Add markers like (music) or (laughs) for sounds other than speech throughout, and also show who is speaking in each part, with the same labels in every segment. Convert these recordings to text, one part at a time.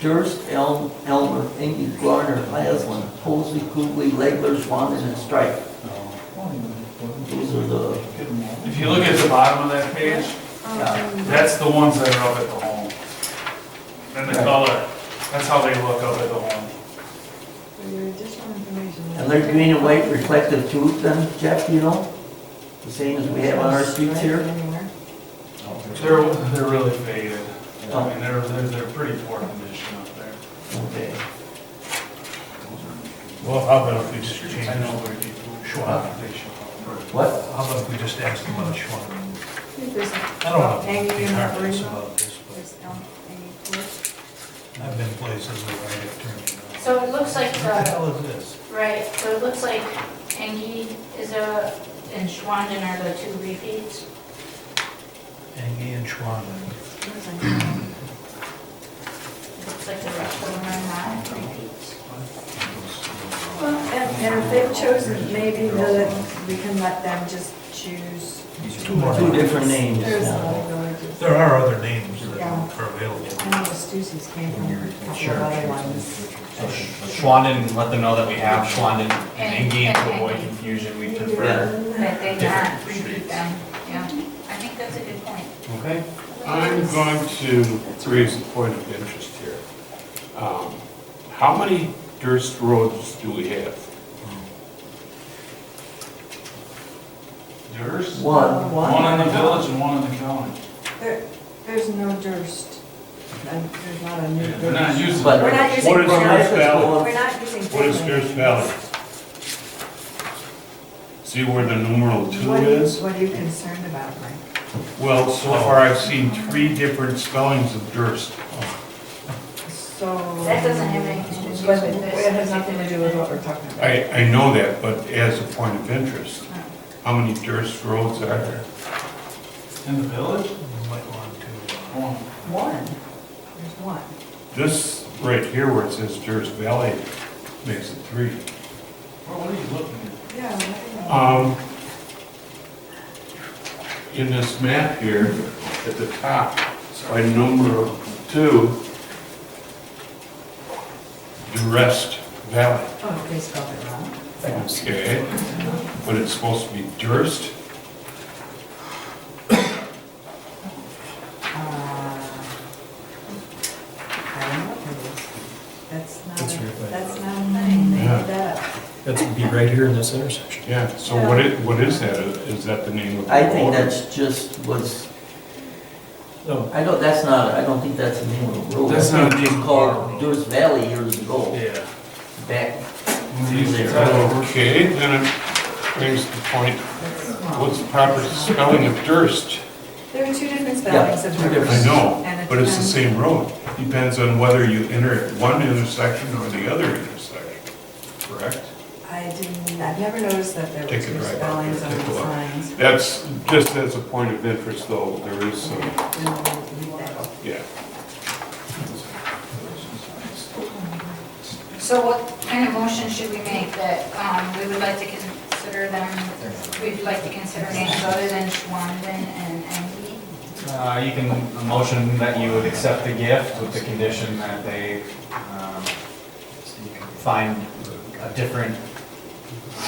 Speaker 1: Durst, Elm, Elmer, Ingy, Garner, Laslin, Posey, Cooley, Legler, Swanton, and Strike. Those are the,
Speaker 2: If you look at the bottom of that page, that's the ones that are up at the home. And the color, that's how they look up at the home.
Speaker 3: For your additional information.
Speaker 1: and they're green and white reflective tubes then, Jeff, you know? The same as we have on our streets here.
Speaker 2: They're, they're really faded. I
Speaker 1: Oh,
Speaker 2: mean, they're, they're, they're pretty poor condition up there.
Speaker 1: okay.
Speaker 4: Well, how about if we just change,
Speaker 2: I know
Speaker 4: it?
Speaker 2: where people.
Speaker 4: Sure.
Speaker 2: They should.
Speaker 1: What?
Speaker 4: how about if we just ask them about Schwann?
Speaker 3: There's
Speaker 4: I don't know
Speaker 3: Hanging
Speaker 4: if
Speaker 3: in
Speaker 4: they
Speaker 3: the
Speaker 4: harped us
Speaker 3: original.
Speaker 4: about this, but
Speaker 3: there's elm, hanging forth.
Speaker 4: I've been places where I get turned.
Speaker 5: So it looks like,
Speaker 4: What the
Speaker 5: uh,
Speaker 4: hell is this?
Speaker 5: right, so it looks like Engie is a, and Schwanden are the two repeats.
Speaker 4: Angie and Schwann.
Speaker 3: There's a-
Speaker 5: Looks like the rest of them are not repeats.
Speaker 3: Well, And and if they've chosen, maybe the, we can let them just choose.
Speaker 4: Two more.
Speaker 1: Two different names.
Speaker 3: There's
Speaker 1: yeah.
Speaker 3: other villages.
Speaker 4: There are other names that
Speaker 3: Yeah.
Speaker 4: are available.
Speaker 3: I know the Stussy's came from a couple of other ones.
Speaker 6: Schwanden, let them know that we have Schwanden and
Speaker 5: And-
Speaker 6: Engie, and to
Speaker 5: and
Speaker 6: avoid
Speaker 5: Engie.
Speaker 6: confusion, we
Speaker 1: Yeah.
Speaker 6: prefer.
Speaker 5: That they
Speaker 6: Different
Speaker 5: not repeat
Speaker 6: streets.
Speaker 5: them, yeah. I think that's a good point.
Speaker 6: Okay.
Speaker 7: I'm going to raise a point of interest here. Um, How many Durst roads do we have?
Speaker 2: Yours?
Speaker 1: One,
Speaker 2: One
Speaker 1: one.
Speaker 2: in the village and one in the county.
Speaker 3: There, there's no Durst. And There's not a new
Speaker 2: They're not
Speaker 3: Durst.
Speaker 2: using.
Speaker 1: But-
Speaker 3: We're not using.
Speaker 4: What is
Speaker 3: Durst.
Speaker 4: Durst Valley?
Speaker 3: We're not using.
Speaker 4: What is
Speaker 3: Durst.
Speaker 4: Durst Valley?
Speaker 7: See where the numeral two
Speaker 3: What are you,
Speaker 7: is?
Speaker 3: what are you concerned about, Mike?
Speaker 7: Well, so far I've seen three different spellings of Durst.
Speaker 3: So.
Speaker 5: That doesn't have anything to do
Speaker 3: But
Speaker 5: with this
Speaker 3: It has nothing to do with what we're talking about.
Speaker 7: I, I know that, but as a point of interest, how many Durst roads are there?
Speaker 2: In the village?
Speaker 4: You might want to, uh,
Speaker 2: One.
Speaker 3: One, there's one.
Speaker 7: This right here where it says Durst Valley makes it three.
Speaker 2: Well, What are you looking at?
Speaker 3: Yeah.
Speaker 7: Um, In this map here, at the top, it's by number two, Durst Valley,
Speaker 3: Oh, they spelled it wrong.
Speaker 7: okay? But it's supposed to be Durst,
Speaker 3: Uh, I don't know what that is. That's not,
Speaker 8: That's
Speaker 3: a-
Speaker 8: right by-
Speaker 3: that's not a thing, they
Speaker 7: Yeah.
Speaker 3: made that up.
Speaker 8: That's be right here in this intersection.
Speaker 7: yeah, so what is, what is that? Is that the name of the road?
Speaker 1: I think that's just was,
Speaker 8: No.
Speaker 1: I don't, that's not, I don't think that's the name of the road.
Speaker 2: That's
Speaker 1: I think
Speaker 2: not
Speaker 1: It
Speaker 2: the-
Speaker 1: was called Durst Valley years ago,
Speaker 2: Yeah.
Speaker 1: back
Speaker 2: There.
Speaker 7: Okay, then it brings the point,
Speaker 3: That's
Speaker 7: what's
Speaker 3: wrong.
Speaker 7: the proper spelling of Durst?
Speaker 3: There are two different spellings of
Speaker 1: two
Speaker 3: Durst. and
Speaker 7: I know,
Speaker 3: it
Speaker 7: but it's the
Speaker 3: depends-
Speaker 7: same road. Depends on whether you enter at one intersection or the other intersection, correct?
Speaker 3: I didn't, I've never noticed that there were
Speaker 7: Take a
Speaker 3: two
Speaker 7: drive out
Speaker 3: spellings
Speaker 7: there,
Speaker 3: on
Speaker 7: take a
Speaker 3: the
Speaker 7: look.
Speaker 3: signs.
Speaker 7: That's, just as a point of interest though, there is some,
Speaker 3: We'll leave that open.
Speaker 7: yeah.
Speaker 5: So what kind of motion should we make that, um, we would like to consider them, we'd like to consider names other than Schwanden and Engie?
Speaker 6: Uh, you can, a motion that you would accept the gift with the condition that they, um, find a different,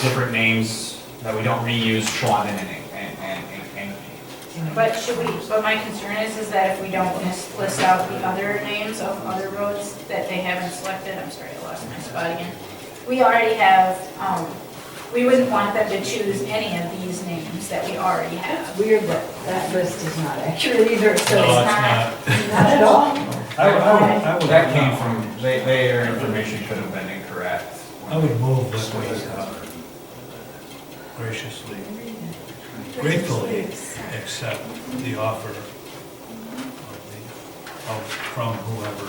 Speaker 6: different names, that we don't reuse Schwanden and, and, and, and Engie.
Speaker 5: But should we, but my concern is, is that if we don't list list out the other names of other roads that they haven't selected, I'm sorry, I lost my spot again. We already have, um, we wouldn't want them to choose any of these names that we already have.
Speaker 3: It's weird that that list is not (laughs) accurate either, so
Speaker 4: No,
Speaker 3: it's
Speaker 4: it's not.
Speaker 3: not at all.
Speaker 4: I would, I would, I would.
Speaker 6: That came from, they, their information could have been incorrect.
Speaker 4: I
Speaker 8: Oh,
Speaker 4: would move this way, uh, graciously, gratefully accept the offer of the, of, from whoever,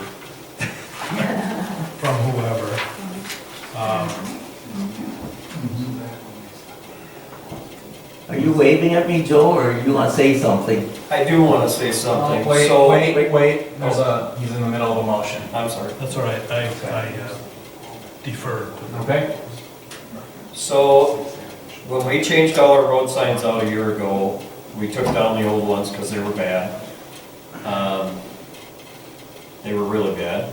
Speaker 4: from whoever, um,
Speaker 1: Are you waving at me, Joe, or you want to say something?
Speaker 8: I do want to say something.
Speaker 6: Wait,
Speaker 8: So-
Speaker 6: wait, wait, wait, there's a, he's in the middle of a motion.
Speaker 8: I'm sorry.
Speaker 4: that's all right, I, I uh, defer to
Speaker 6: Okay?
Speaker 8: So when we changed all our road signs out a year ago, we took down the old ones because they were bad. Um, They were really bad.